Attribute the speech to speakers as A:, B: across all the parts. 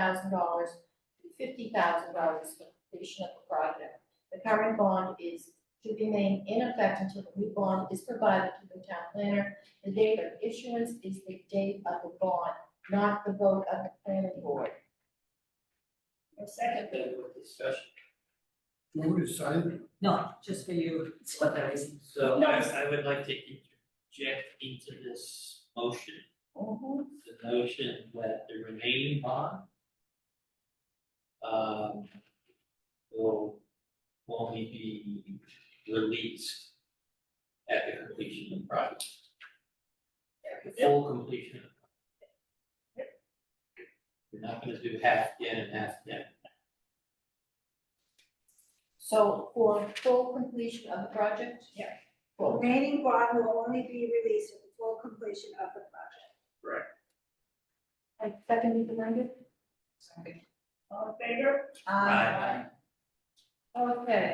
A: thousand dollars to fifty thousand dollars for completion of the project. The current bond is to remain in effect until the new bond is provided to the town planner. The date of issuance is the date of the bond, not the vote of the planning board.
B: A second.
C: Then with discussion. Who decided?
D: No, just for you, it's what there is.
C: So I
B: No.
C: I would like to inject into this motion,
A: Mhm.
C: the notion that the remaining bond um will only be released at the completion of the project, the full completion of the project. You're not gonna do half again and half again.
A: So for full completion of the project?
B: Yeah.
A: Full.
E: Remaining bond will only be released at the full completion of the project.
A: I seconded the language?
D: Sorry.
B: All in favor?
C: Aye.
A: Um, Okay.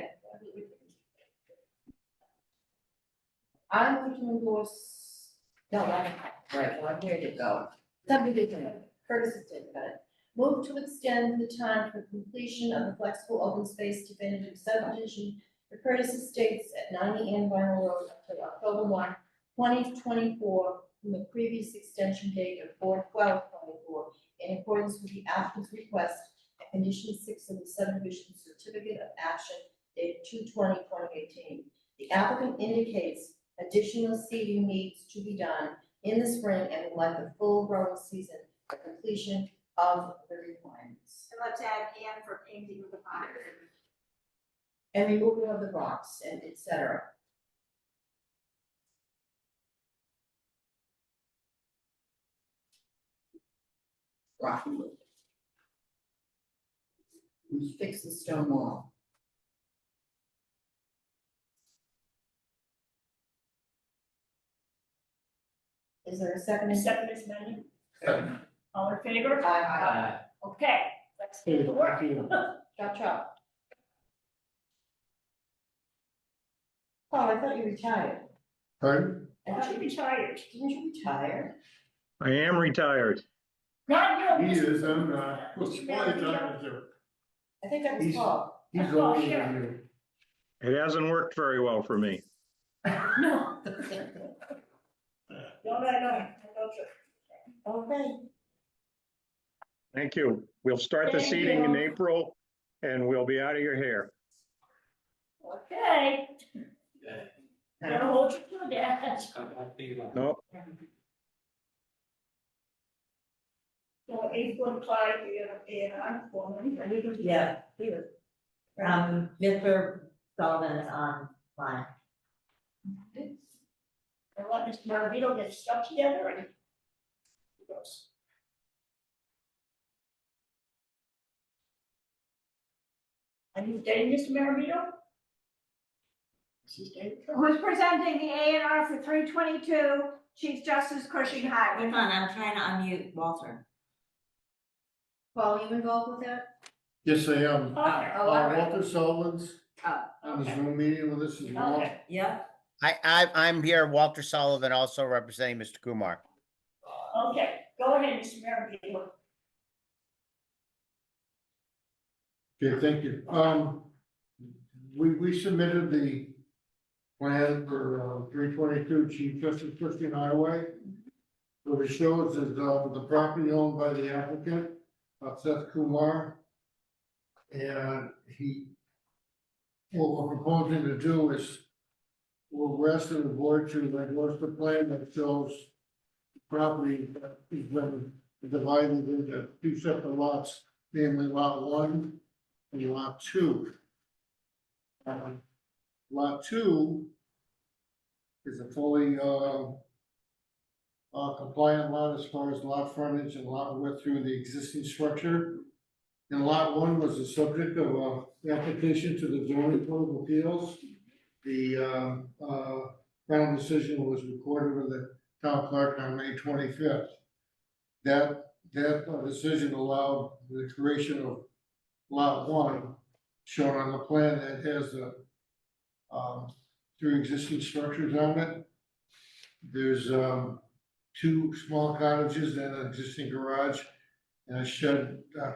A: I'm going to endorse, no, I don't, right, well, where did it go? Somebody did it, Curtis did it, got it. Move to extend the time for completion of the flexible open space definitive subdivision for Curtis Estates at ninety and Vinyl Road until October one, twenty twenty-four, from the previous extension date of four twelve twenty-four, in accordance with the applicant's request and condition six of the subdivision certificate of action dated 2018. The applicant indicates additional seeding needs to be done in the spring and would like the full growing season for completion of the requirements.
E: And let's add and for painting of the bond.
A: And removal of the rocks and et cetera. Rock removal. Fix the stone wall. Is there a second?
B: A second is many.
C: Second.
B: All in favor?
A: Aye.
C: Aye.
B: Okay, let's do the work.
A: Chop chop. Paul, I thought you retired.
F: Pardon?
A: I
B: Why
A: thought
B: should
A: you-
B: be tired?
A: Didn't you retire?
G: I am retired.
B: Not you.
F: He is, I'm not.
B: Mr. Mayor,
A: I think that was
F: He's-
A: Paul.
F: He's older than
G: It hasn't worked very well for me.
B: No. No, no, no, no, no,
A: Okay.
G: Thank you. We'll start the
B: Thank
G: seating in
B: you.
G: April and we'll be out of your hair.
B: no. Okay,
C: Okay.
B: gotta hold you to that.
C: I'm happy about it.
G: No,
B: So eight one five, we have A and R form.
D: Yeah, he was. Um, Mr. Sullivan is online.
B: I want Mr. Maravito to get stuff together and. he goes. Are you dating Mr. Maravito? She's dating.
E: Who's presenting the A and R for three twenty-two Chief Justice Cushing Highway?
D: Hold on, I'm trying to unmute Walter.
A: Paul, you involved with that?
F: Yes, I am. Uh,
B: Okay,
A: Oh, all right.
F: Walter Sullivan's on the
B: okay,
F: Zoom meeting with us as well.
B: okay.
D: Yeah,
H: I, I, I'm here, Walter Sullivan, also representing Mr. Kumar.
B: Okay, go ahead, Mr. Maravito.
F: Okay, thank you. Um, we, we submitted the plan for uh, three twenty-two Chief Justice Christian Highway. What it shows is, uh, the property owned by the applicant, uh, Seth Kumar. And he, what we're proposing to do is, we're asking the board to, like, what's the plan that shows property that is been divided into two separate lots, namely lot one and lot two. Um, Lot two is a fully, uh, uh, compliant lot as far as lot frontage and lot width through the existing structure. And lot one was the subject of, uh, application to the zoning board of appeals. The, uh, uh, final decision was recorded with the town clerk on May twenty-fifth. That, that uh, decision allowed the creation of lot one, shown on the plan that has the um, two existing structures on it. There's, um, two small cottages and an existing garage and a shed, uh,